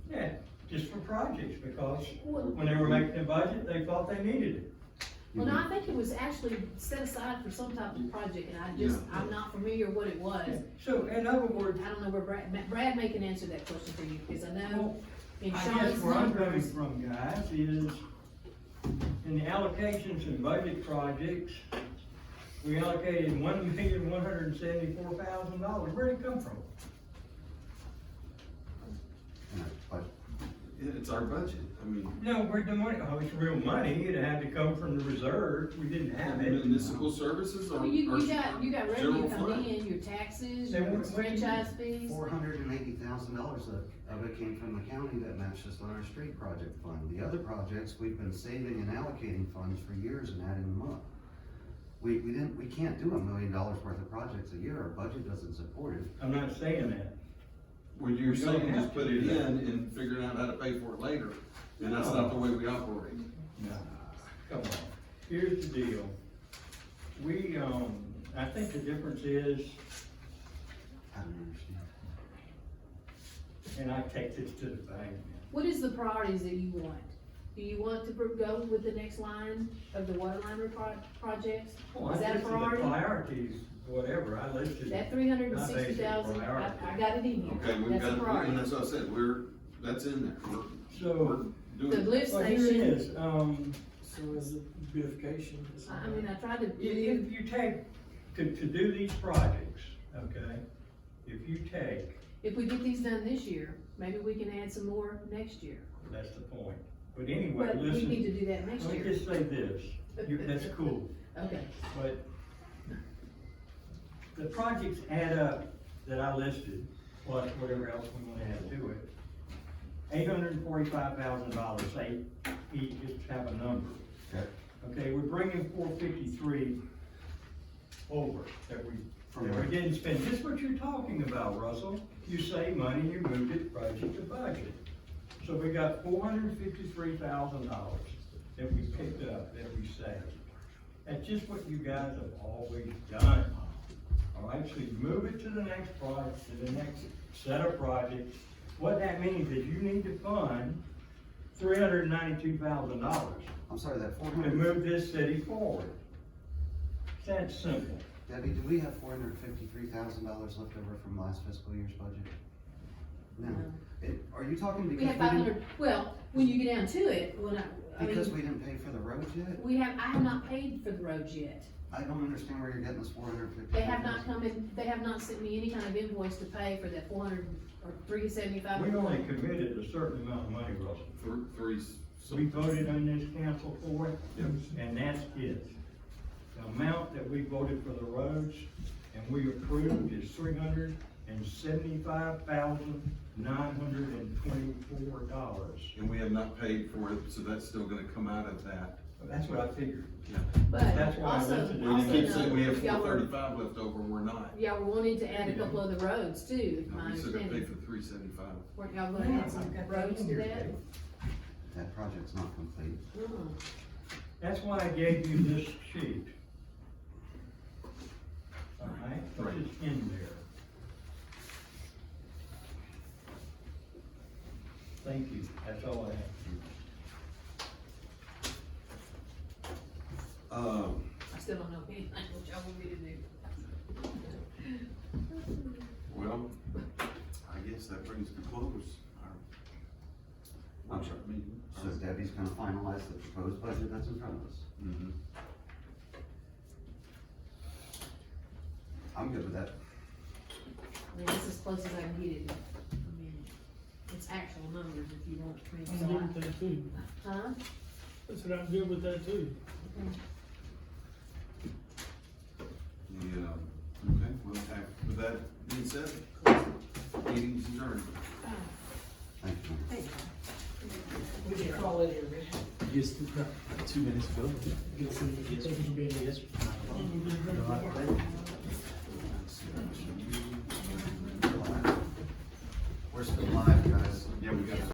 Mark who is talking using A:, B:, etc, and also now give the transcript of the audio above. A: just for projects, because
B: Well,
A: when they were making the budget, they thought they needed it.
C: Mm-hmm.
B: well, no, I think it was actually set aside for some type of project, and I just, I'm not familiar what it was.
A: So in other
B: I
A: words,
B: don't know where Brad, Ma- Brad may can answer that question for you, because I know in
A: I guess
B: Sean's
A: where I'm coming
B: numbers.
A: from, guys, is in the allocations and budget projects, we allocated one million, one hundred and seventy-four thousand dollars. Where'd it come from?
D: Yeah, But it- it's our budget, I mean,
A: No, where'd the money, oh, it's real money. It had to come from the reserve. We didn't have it.
D: Municipal
A: And
D: s-
C: services
B: Well, you, you got, you got revenue
C: General
B: coming
C: fund.
B: in, your taxes,
A: Then
B: your
A: what- what do you-
B: franchise fees.
D: four hundred and eighty thousand dollars of of it came from the county that matched us on our street project fund. The other projects, we've been saving and allocating funds for years and adding them up. We, we didn't, we can't do a million dollars worth of projects a year, our budget doesn't support it.
A: I'm not saying that.
C: When you're
A: You don't
C: saying
A: have
C: just
A: to
C: put it
A: do
C: in
A: that.
C: and figuring out how to pay for it later, and that's not the way we operate.
A: No, come on. Here's the deal. We, um, I think the difference is,
D: I don't understand.
A: and I take this to the bank.
B: What is the priorities that you want? Do you want to pro- go with the next line of the water line repro- projects?
A: Well, I
B: Is that a
A: listed the
B: priority?
A: Priorities, whatever, I listed.
B: That three hundred and sixty thousand, I, I got it in
C: Okay,
B: here,
C: we've
B: that's a
C: got, and
B: priority.
C: that's what I said, we're, that's in there, we're, we're
A: So,
B: The
C: doing.
B: lift
A: well, here it
B: station,
A: is, um,
E: So is it beautification? Is
B: I I mean, I tried to,
A: if, if you take, to, to do these projects, okay? If you take,
B: if we get these done this year, maybe we can add some more next year.
A: that's the point. But anyway,
B: But we need
A: listen,
B: to do that next
A: let me
B: year.
A: just say this, You- that's cool.
B: Okay,
A: But the projects add up that I listed, plus whatever else we wanna add to it. Eight hundred and forty-five thousand dollars, say, each, just have a number.
D: Okay.
A: Okay, we're bringing four fifty-three over that we,
D: From
A: that
D: where?
A: we didn't spend. This is what you're talking about, Russell. You save money, you moved it budget to budget. So we got four hundred and fifty-three thousand dollars that we picked up, that we saved. That's just what you guys have always done. All right, so you move it to the next project, to the next set of projects. What that means is you need to fund three hundred and ninety-two thousand dollars
D: I'm sorry, that four
A: to
D: hundred,
A: move this city forward. It's that simple.
D: Debbie, do we have four hundred and fifty-three thousand dollars left over from last fiscal year's budget? No.
B: No.
D: It- are you talking because
B: we
D: Mm. we
B: have five
D: didn't,
B: hundred, well, when you get down to it, when I, I
D: because
B: mean,
D: we didn't pay for the roads yet?
B: we have, I have not paid for the roads yet.
D: I don't understand where you're getting this four hundred and fifty.
B: They have not come in, they have not sent me any kind of invoice to pay for that four hundred or three seventy-five.
A: We only committed a certain amount of money, Russell.
C: Three, three.
A: So we voted on this council for it,
C: Yep.
A: and that's it. The amount that we voted for the roads and we approved is three hundred and seventy-five thousand, nine hundred and twenty-four dollars.
C: And we have not paid for it, so that's still gonna come out of that.
A: That's what I figured.
B: But
A: That's why I
B: also,
A: listed it.
C: And
B: also
C: you keep saying we
B: know,
C: have
B: y'all
C: four
B: were,
C: thirty-five left over, and we're not.
B: y'all were wanting to add a couple of the roads too, if
C: No,
B: my
C: We still gotta pay
B: understanding.
C: for three seventy-five.
B: Weren't y'all gonna add some roads to that?
D: That project's not complete.
B: Uh-uh.
A: That's why I gave you this sheet. All right,
C: Right.
A: which is in there. Thank you, that's all I have.
C: Um,
B: I still don't know anything what y'all want me to do.
C: well, I guess that brings to close our workshop meeting.
D: So Debbie's gonna finalize the proposed budget that's in front of us.
C: Mhm.
D: I'm good with that.
B: I mean, that's as close as I can get it. I mean, it's actual numbers if you want me
E: I'm good with
B: to.
E: that too.
B: Huh?
E: That's what I'm good with that too.
C: Yeah, okay, well, okay. with that being said, close the meeting's adjourned.
D: Thank you.
F: We can call it a written.
G: Yes, two minutes ago. Yes,
E: Thank you for being here.
G: yes.
D: We're still live, guys.
C: Yeah, we got.